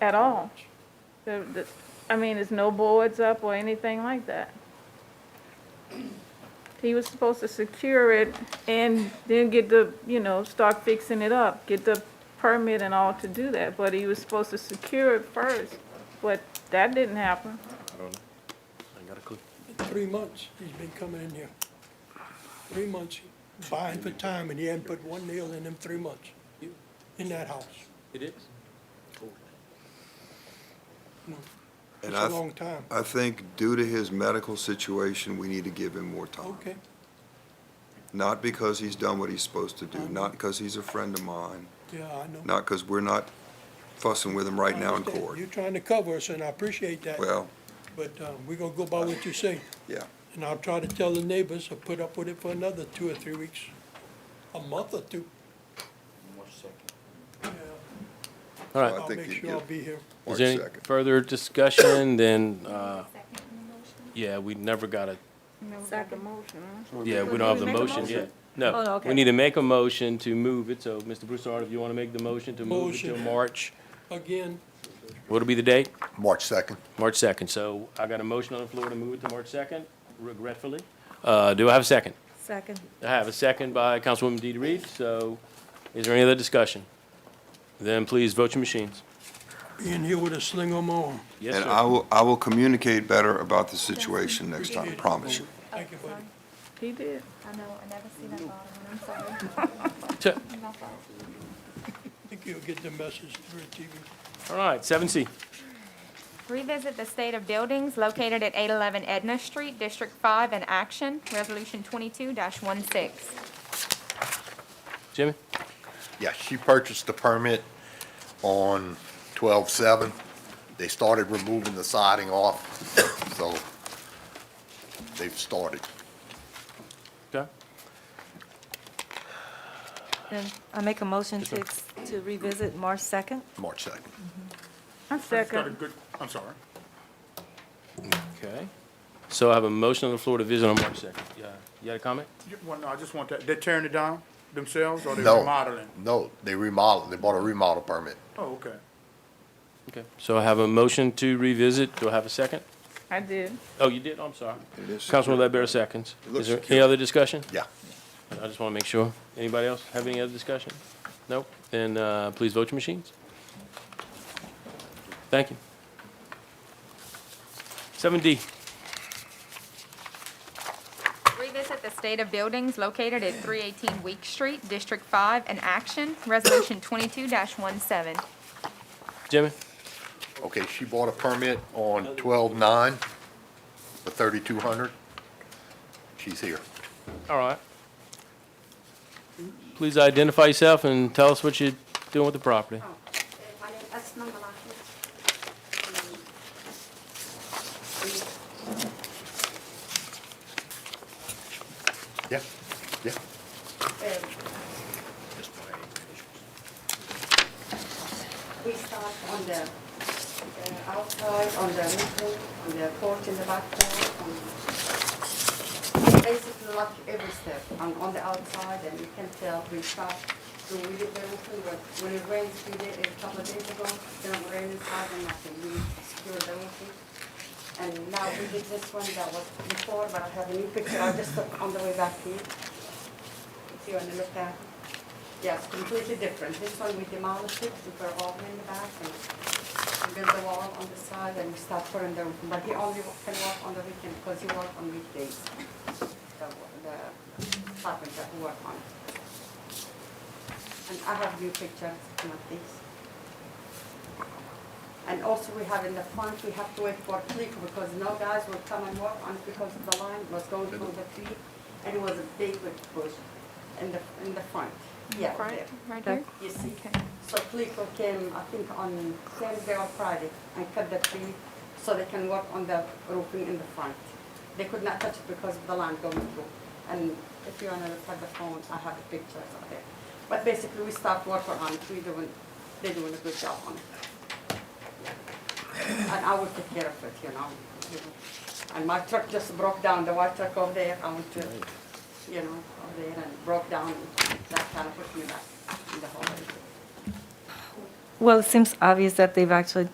at all. The, the, I mean, there's no boards up or anything like that. He was supposed to secure it and then get the, you know, start fixing it up, get the permit and all to do that, but he was supposed to secure it first, but that didn't happen. I don't know. I ain't got a clue. Three months he's been coming in here. Three months buying for time and he hadn't put one nail in them three months in that house. It is? It's And a I, long time. I think due to his medical situation, we need to give him more time. Okay, Not because he's done what he's supposed to do, not because he's a friend of mine, yeah, I know. not because we're not fussing with him right now in understand. court. You're trying to cover us and I appreciate that, Well, but um, we're gonna go by what you say. yeah, And I'll try to tell the neighbors to put up with it for another two or three weeks, a month or two. All Well, right. I'll think make you sure I'll give- be here. Is March there any 2nd. further discussion? Then, uh, Second motion? yeah, we never got a, Never got the Second. motion, huh? yeah, we Did don't have we the make a motion motion? yet. Oh, no, No, we okay. need to make a motion to move it. So, Mr. Broussard, if you want to make the motion to move it till Motion. March, Again, what'll be the date? March 2nd. March 2nd. So I got a motion on the floor to move it to March 2nd, regretfully. Uh, Do I have a second? Second. I have a second by Councilwoman DeeDee Reed. So is there any other discussion? Then please vote your machines. being here with a sling on my arm. Yes, and I sir. will, I will communicate better about the situation next time, promise you. Thank you, buddy. He did. I know, I never seen that bottom, one. I'm sorry. So- My fault. I think you'll get the message through TV. All right, 7C. Revisit the state of buildings located at 811 Edna Street, District 5, in action, Resolution 22-16. Jimmy? Yeah, she purchased the permit on 12/7. They started removing the siding off, so they've started. Okay. Then I make a motion to, Yes, ex- to revisit March 2nd? March 2nd. I second. I'm sorry. Okay. So I have a motion on the floor to visit on March 2nd. Yeah, You had a comment? You- Well, no, I just want that, they're tearing it down themselves or they're No, remodeling? No, they remodeled, they bought a remodel permit. Oh, okay. Okay. So I have a motion to revisit. Do I have a second? I did. Oh, you did? I'm sorry. It is Councilman Ledbetter seconds. Is looks there any secure. other discussion? Yeah. I just want to make sure. Anybody else have any other discussion? Nope. Then uh, please vote your machines. Thank you. 7D. Revisit the state of buildings located at 318 Week Street, District 5, in action, Resolution 22-17. Jimmy? Okay, she bought a permit on 12/9 for 3,200. She's here. All right. Please identify yourself and tell us what you're doing with the property. My name is Asma Malaki. Yeah, yeah. We start on the uh, outside, on the roofing, on the porch in the backyard, on basically like every step, on, on the outside, and you can tell we start to we did the roofing, but when it rains, we did it a couple of days ago, then it rained inside and nothing, we secured the roofing. And now we did this one that was before, but I have a new picture, I just took on the way back here. If you want to look at it. Yes, completely different. This one we demolished it, we put a wall in the back and we built the wall on the side and we start putting the, but he only can work on the weekend because he work on weekdays. The, the carpenter who work on. it. And I have new pictures, not these. And also we have in the front, we have to wait for creek because no guys will come and work on it because the line was going through the creek and it was a big bush in the, in the front. Yeah, Right, there. right here? You see, Okay. so Plico came, I think, on Thursday or Friday and cut the tree so they can work on the roofing in the front. They could not touch it because of the line going through. And if you wanna look at the phone, I have the pictures of it. But basically, we start working on it, we doing, they're doing a good job on it. And I will take care of it, you know. And my truck just broke down, the white truck over there, I went to, you know, over there and broke down, that kind of put me back in the hole. Well, it seems obvious that they've actually